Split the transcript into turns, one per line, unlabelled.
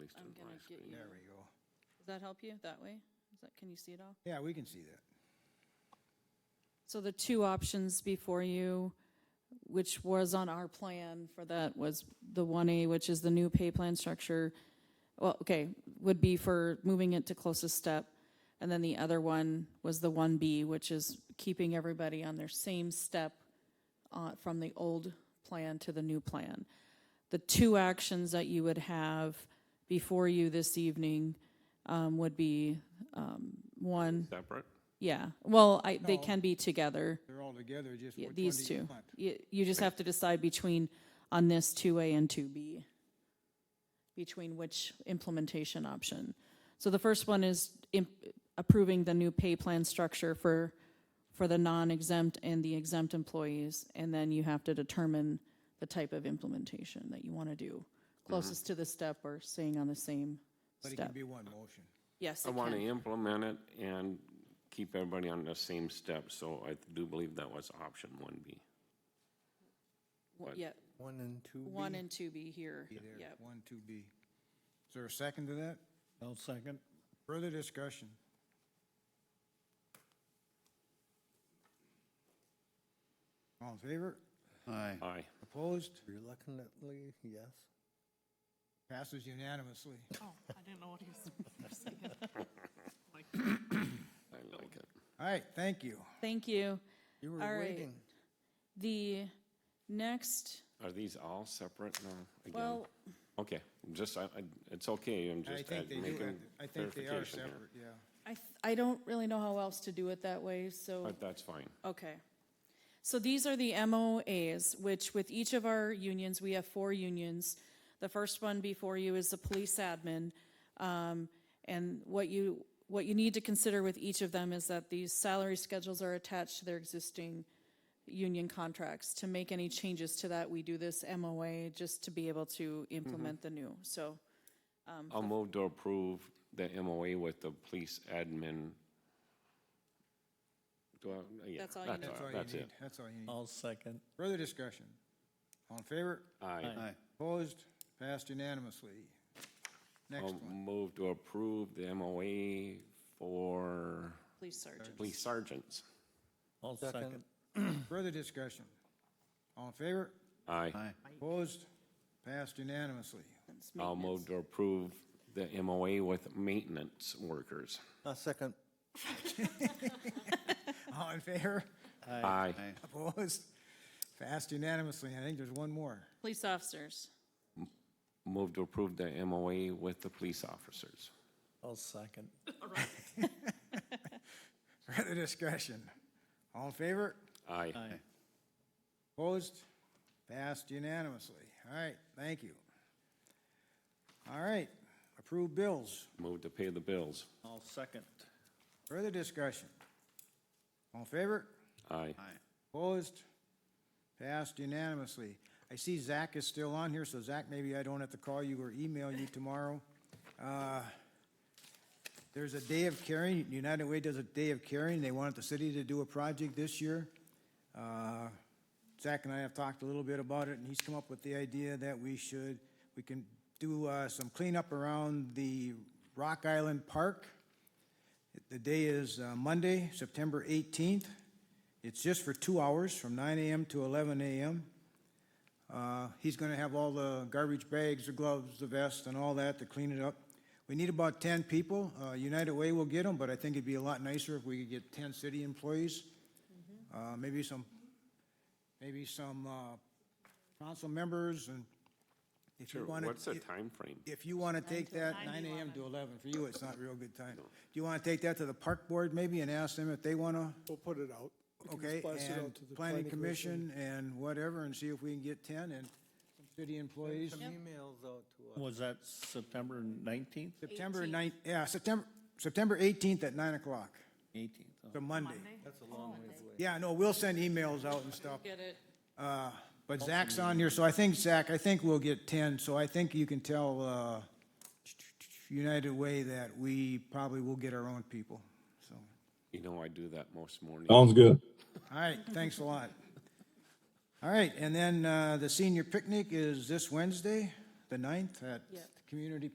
least
I'm
in
gonna
my
get
screen.
you-
There we go.
Does that help you that way? Is that, can you see it all?
Yeah, we can see that.
So the two options before you, which was on our plan for that, was the one A, which is the new pay plan structure. Well, okay, would be for moving it to closest step. And then the other one was the one B, which is keeping everybody on their same step uh, from the old plan to the new plan. The two actions that you would have before you this evening um, would be, um, one,
Separate?
yeah, well, I, they
No.
can be together.
They're all together, just
Yeah,
which one do you
these two.
want?
You, you just have to decide between, on this two A and two B, between which implementation option. So the first one is im- approving the new pay plan structure for, for the non-exempt and the exempt employees. And then you have to determine the type of implementation that you want to do, closest to the step or staying on the same
Mm-hmm. But it can
step.
be one motion.
Yes,
I
it
want to
can.
implement it and keep everybody on the same step, so I do believe that was option one B.
W- Yeah,
One and two B?
one and two B here,
Be there,
yep.
one, two B. Is there a second to that?
I'll second.
Further discussion? All in favor?
Aye.
Aye.
Opposed?
Reluctantly, yes.
Passes unanimously.
Oh, I didn't know what he was saying. Like,
I like it.
All right, thank you.
Thank you.
You
All
were
right.
waiting.
The next,
Are these all separate now? again?
well,
Okay, just, I, I, it's okay, I'm
I
just uh,
think they do, have
making
to- I think they are
clarification here.
separate, yeah.
I, th- I don't really know how else to do it that way, so,
But that's fine.
okay. So these are the MOAs, which with each of our unions, we have four unions. The first one before you is the police admin. Um, and what you, what you need to consider with each of them is that these salary schedules are attached to their existing union contracts. To make any changes to that, we do this MOA just to be able to
Mm-hmm.
implement the new, so.
Um,
I'll move to approve the MOA with the police admin. Do I, yeah,
That's all you need.
all-
That's all you
that's
need,
it.
that's all you need.
I'll second.
Further discussion? All in favor?
Aye.
Opposed? Passed unanimously. Next
I'll
one.
move to approve the MOA for
Police sergeant.
police sergeants.
I'll second.
Further discussion? All in favor?
Aye.
Opposed? Passed unanimously.
I'll move to approve the MOA with maintenance workers.
I'll second.
All in favor?
Aye.
Opposed? Passed unanimously. I think there's one more.
Police officers.
Move to approve the MOA with the police officers.
I'll second.
Further discussion? All in favor?
Aye.
Opposed? Passed unanimously. All right, thank you. All right, approved bills.
Move to pay the bills.
I'll second.
Further discussion? All in favor?
Aye.
Opposed? Passed unanimously. I see Zach is still on here, so Zach, maybe I don't have to call you or email you tomorrow. Uh, There's a day of caring, United Way does a day of caring, they wanted the city to do a project this year. Uh, Zach and I have talked a little bit about it, and he's come up with the idea that we should, we can do uh, some cleanup around the Rock Island Park. The day is uh, Monday, September 18th. It's just for two hours, from 9 AM to 11 AM. Uh, He's going to have all the garbage bags, the gloves, the vest, and all that to clean it up. We need about 10 people. Uh, United Way will get them, but I think it'd be a lot nicer if we could get 10 city employees, Uh, maybe some, maybe some uh, council members, and if you
Sure,
want to...
what's the time frame?
If you want to take that, 9 AM to 11, for you, it's not real good time. Do you want to take that to the park board maybe and ask them if they want to?
We'll put it out. We can just
Okay,
blast it
and
out to the
planning commission and whatever, and see if we can get ten and some city employees.
Was that September nineteenth?
September ninth, yeah, September, September eighteenth at nine o'clock,
Eighteenth.
the Monday.
Monday?
Yeah, no, we'll send emails out and stuff,
Oh, Get it.
uh, but Zach's on here, so I think, Zach, I think we'll get ten, so I think you can tell, uh, United Way that we probably will get our own people, so.
You know, I do that most mornings.
Sounds good.
All right, thanks a lot. All right, and then uh, the senior picnic is this Wednesday, the 9th, at
Yep.
Community